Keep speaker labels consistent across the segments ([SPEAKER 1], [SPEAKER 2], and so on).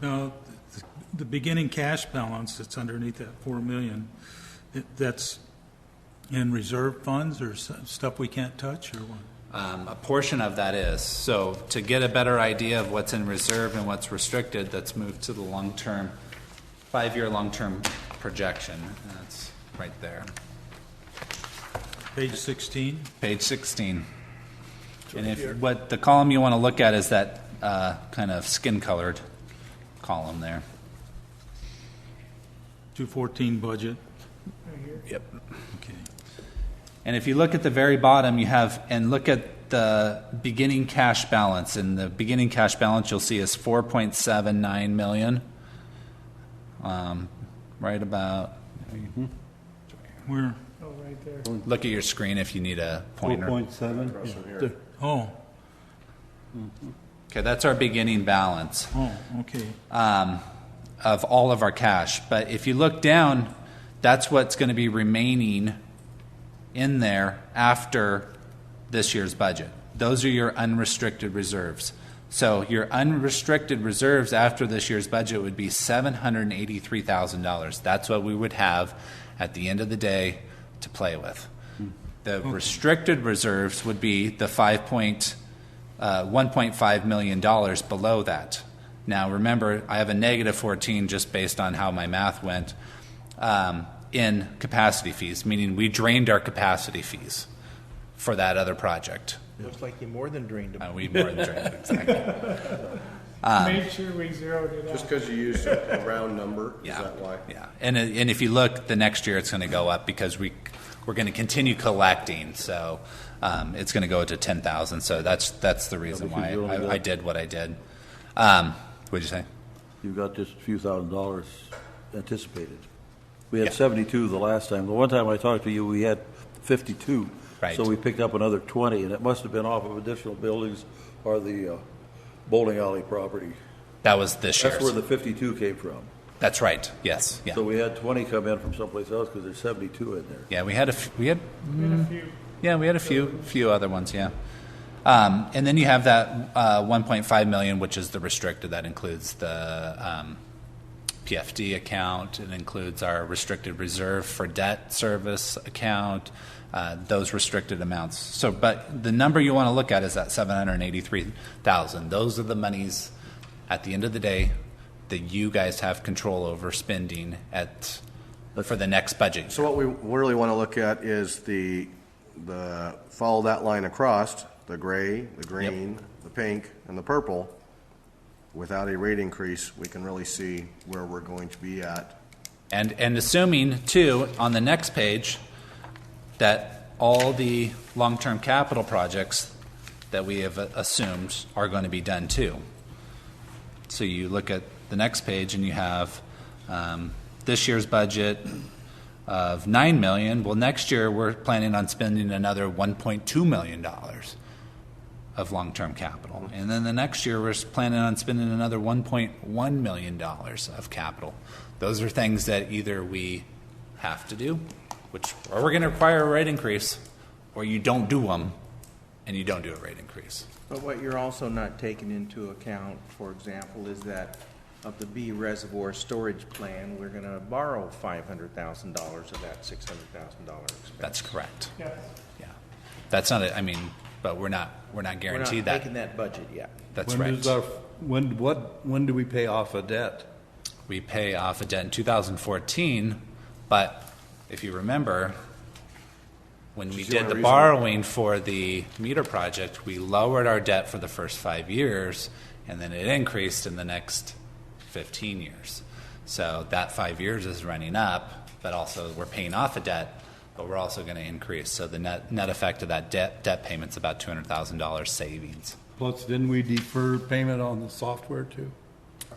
[SPEAKER 1] No, th- the beginning cash balance that's underneath that four million, it- that's in reserve funds or s- stuff we can't touch or what?
[SPEAKER 2] Um, a portion of that is. So to get a better idea of what's in reserve and what's restricted, that's moved to the long-term, five-year long-term projection. And That's right there.
[SPEAKER 1] Page sixteen?
[SPEAKER 2] Page 16. And if, what, the column you want to look at is that uh, kind of skin-colored column there.
[SPEAKER 1] 214 budget,
[SPEAKER 2] Yep.
[SPEAKER 1] okay.
[SPEAKER 2] And if you look at the very bottom, you have, and look at the beginning cash balance, and the beginning cash balance you'll see is four point seven nine million. Um, right about,
[SPEAKER 1] Where,
[SPEAKER 2] look at your screen if you need a pointer.
[SPEAKER 3] 4.7?
[SPEAKER 1] oh,
[SPEAKER 2] Okay, that's our beginning balance.
[SPEAKER 1] oh, okay.
[SPEAKER 2] um, of all of our cash. But if you look down, that's what's going to be remaining in there after this year's budget. Those are your unrestricted reserves. So your unrestricted reserves after this year's budget would be $783,000. That's what we would have at the end of the day to play with. The restricted reserves would be the five point, uh, $1.5 million below that. Now, remember, I have a negative 14 just based on how my math went um, in capacity fees, meaning we drained our capacity fees for that other project.
[SPEAKER 4] Looks like you more than
[SPEAKER 2] Uh,
[SPEAKER 4] dreamed about
[SPEAKER 2] we more than drained, exactly.
[SPEAKER 5] Made sure we zeroed it
[SPEAKER 3] Just
[SPEAKER 5] out.
[SPEAKER 3] because you used a a round number, is
[SPEAKER 2] Yeah.
[SPEAKER 3] that why?
[SPEAKER 2] Yeah. And, it- and if you look, the next year it's going to go up because we, we're going to continue collecting. So um, it's going to go to 10,000. So that's, that's the reason why
[SPEAKER 6] because you only
[SPEAKER 2] I,
[SPEAKER 6] got-
[SPEAKER 2] I did what I did. Um, what'd you say?
[SPEAKER 6] You've got just a few thousand dollars anticipated. We had 72 the last time. The one time I talked to you, we had 52.
[SPEAKER 2] Right.
[SPEAKER 6] So we picked up another 20, and it must have been off of additional buildings or the uh, bowling alley property.
[SPEAKER 2] That was this year's.
[SPEAKER 6] That's where the 52 came from.
[SPEAKER 2] That's right. Yes. Yeah.
[SPEAKER 6] So we had 20 come in from someplace else because there's 72 in there.
[SPEAKER 2] Yeah, we had a f- we had mm,
[SPEAKER 5] We had a few.
[SPEAKER 2] yeah we had a few few other ones yeah, um, and then you have that uh, 1.5 million, which is the restricted that includes the um, PFD account. It includes our restricted reserve for debt service account. Uh, those restricted amounts. So, but the number you want to look at is that 783,000. Those are the monies at the end of the day that you guys have control over spending at for the next budget.
[SPEAKER 3] So what we really want to look at is the, the, follow that line across, the gray, the green, the pink, and the purple. Without a rate increase, we can really see where we're going to be at.
[SPEAKER 2] And, and assuming, too, on the next page, that all the long-term capital projects that we have assumed are going to be done, too. So you look at the next page and you have um, this year's budget of 9 million. Well, next year, we're planning on spending another 1.2 million dollars of long-term capital. And then the next year, we're planning on spending another $1.1 million of capital. Those are things that either we have to do, which, or we're going to require a rate increase, or you don't do them, and you don't do a rate increase.
[SPEAKER 4] But what you're also not taking into account, for example, is that of the B reservoir storage plan, we're gonna borrow five hundred thousand dollars of that six hundred thousand dollar expense.
[SPEAKER 2] That's correct.
[SPEAKER 5] Yes.
[SPEAKER 2] Yeah. That's not, a- I mean, but we're not, we're not
[SPEAKER 4] We're not
[SPEAKER 2] guaranteed
[SPEAKER 4] making
[SPEAKER 2] that.
[SPEAKER 4] that budget yet.
[SPEAKER 2] That's
[SPEAKER 7] When
[SPEAKER 2] right.
[SPEAKER 7] does our, when, what, when do we pay off a debt?
[SPEAKER 2] We pay off a debt in 2014, but if you remember, when we
[SPEAKER 3] is
[SPEAKER 2] did
[SPEAKER 3] the
[SPEAKER 2] the
[SPEAKER 3] only reason-
[SPEAKER 2] borrowing for the meter project, we lowered our debt for the first five years, and then it increased in the next 15 years. So that five years is running up, but also we're paying off a debt, but we're also going to increase. So the net, net effect of that debt, debt payment's about $200,000 savings.
[SPEAKER 7] Plus, didn't we defer payment on the software too?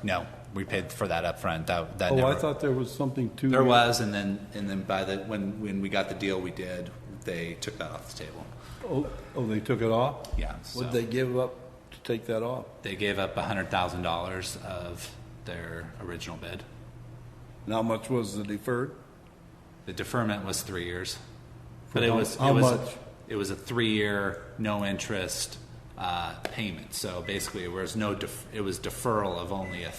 [SPEAKER 2] No, we paid for that upfront. That, that
[SPEAKER 7] Oh, I
[SPEAKER 2] never-
[SPEAKER 7] thought there was something to.
[SPEAKER 2] There was, and then, and then by the, when, when we got the deal we did, they took that off the table.
[SPEAKER 7] Oh, oh, they took it off?
[SPEAKER 2] Yeah, so
[SPEAKER 7] What'd they give up to take that off?
[SPEAKER 2] they gave up a hundred thousand dollars of their original bid.
[SPEAKER 7] And how much was the deferred?
[SPEAKER 2] The deferment was three years. But it
[SPEAKER 7] how-
[SPEAKER 2] was,
[SPEAKER 7] how
[SPEAKER 2] it was,
[SPEAKER 7] much?
[SPEAKER 2] it was a three-year, no interest, uh, payment. So basically, it was no, def- it was deferral of only a